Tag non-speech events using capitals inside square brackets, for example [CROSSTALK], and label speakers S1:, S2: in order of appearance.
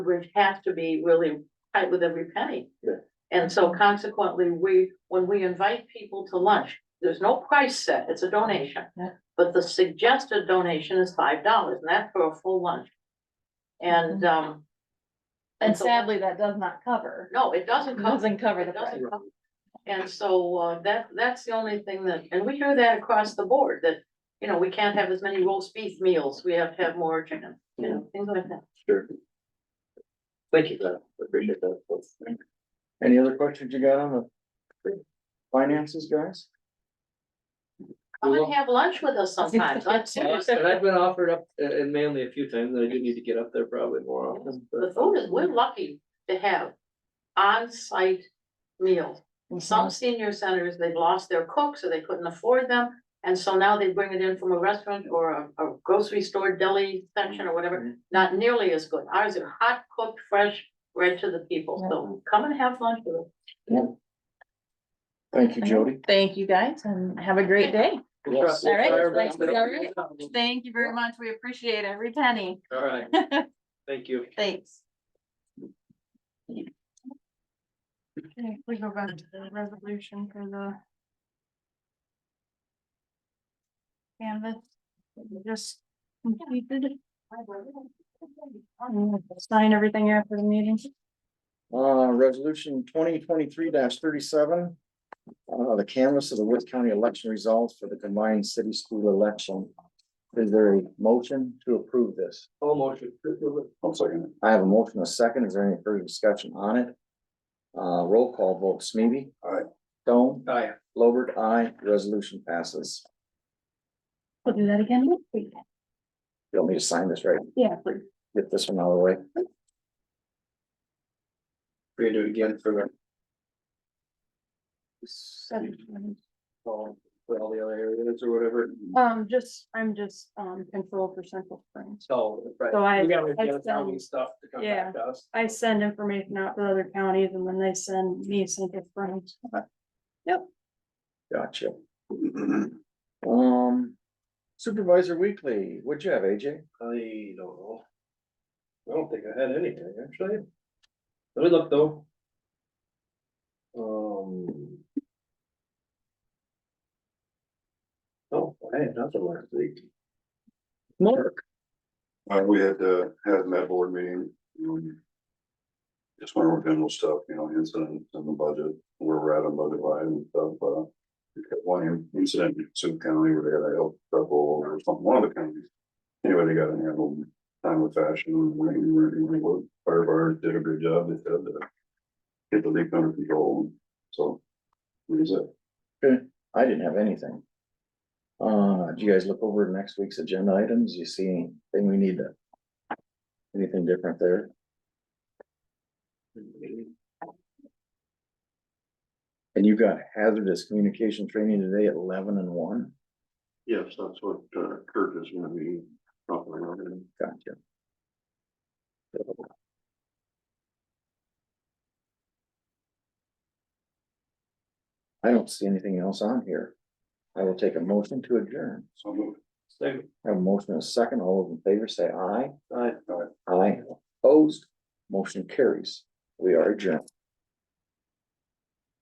S1: we have to be really tight with every penny.
S2: Yeah.
S1: And so consequently, we, when we invite people to lunch, there's no price set, it's a donation.
S3: Yeah.
S1: But the suggested donation is five dollars, and that's for a full lunch. And, um.
S3: Mm-hmm. And
S1: so-
S3: sadly, that does not cover,
S1: No, it doesn't cover.
S3: doesn't cover the
S1: It doesn't
S3: price.
S1: cover- And so, uh, that, that's the only thing that, and we hear that across the board, that, you know, we can't have as many roast beef meals, we have to have more chicken, you know, things like that.
S2: Sure. Thank you, Beth. I appreciate that.
S4: Any other questions you got on the finances, guys?
S1: Come and have lunch with us
S3: [LAUGHS]
S1: sometimes, I'm serious,
S2: And I've been offered up, uh, and mainly a few times, and I do need to get up there probably more often,
S1: the
S2: but.
S1: food is, we're lucky to have on-site meals.
S3: Mm-hmm.
S1: Some senior centers, they've lost their cooks or they couldn't afford them. And so now they bring it in from a restaurant or a- a grocery store deli section or whatever,
S2: Mhm.
S1: not nearly as good. Ours are hot cooked, fresh, right to the people. So come and have lunch with us.
S4: Thank you, Jody.
S3: Thank you guys and have a great day.
S2: Yes.
S3: All right,
S2: Sorry,
S3: thanks,
S2: but-
S3: all right. Thank you very much. We appreciate every penny.
S2: All right, thank you.
S3: Thanks. Okay, we go back to the resolution for the. Canvas, that we just completed. And Sign everything after the meeting.
S4: Uh, resolution twenty twenty-three thirty-seven. Uh, the canvas of the Wood County election results for the combined city school election. Is there a motion to approve this?
S2: All motion.
S4: I'm sorry. I have a motion, and a second. Is there any further discussion on it? Uh, roll call vote, Smeeby.
S2: Aye.
S4: Stone,
S2: Aye.
S4: Lowert, aye. Resolution passes.
S3: We'll do that again. next week.
S4: You'll need to sign this, right?
S3: Yeah, please.
S4: Get this one out of the way.
S2: Read it again for.
S3: Seven.
S2: all- For all the other areas or whatever.
S3: Um, just, I'm just, um, control for Central Springs.
S2: So. right.
S3: So I-
S2: We gotta
S3: I
S2: get the county
S3: send-
S2: stuff to come back to us.
S3: I send information out to other counties and then they send me Central Springs.
S4: Gotcha. Um, Supervisor Weekly, what'd you have, AJ?
S2: I don't know. I don't think I had anything, actually. Let me look though. Um. Oh, I had nothing last week.
S4: Mark.
S5: Uh, we had, uh, had that board meeting. um, Just went over general stuff, you know, incidents and the budget, where we're at on budget line and stuff, uh. we got One incident in Sioux County where they had a help trouble or something, one of the counties. Anyway, they got it handled time with fashion, and we, we, we, we- fire bar did a good job, they said, uh. Get the leak under control, so. What is it?
S4: I didn't have anything. Uh, do you guys look over next week's agenda items? You see anything we need to? Anything different there? And you've got hazardous communication training today at eleven and one?
S5: Yes, that's what, uh, Kurt is gonna be. talking about.
S4: Gotcha. I don't see anything else on here. I will take a motion to adjourn.
S5: So, I'm-
S2: Same,
S4: I Have a motion and a second. All those in favor say aye.
S2: I,
S4: Aye. Opposed, motion carries. We are adjourned.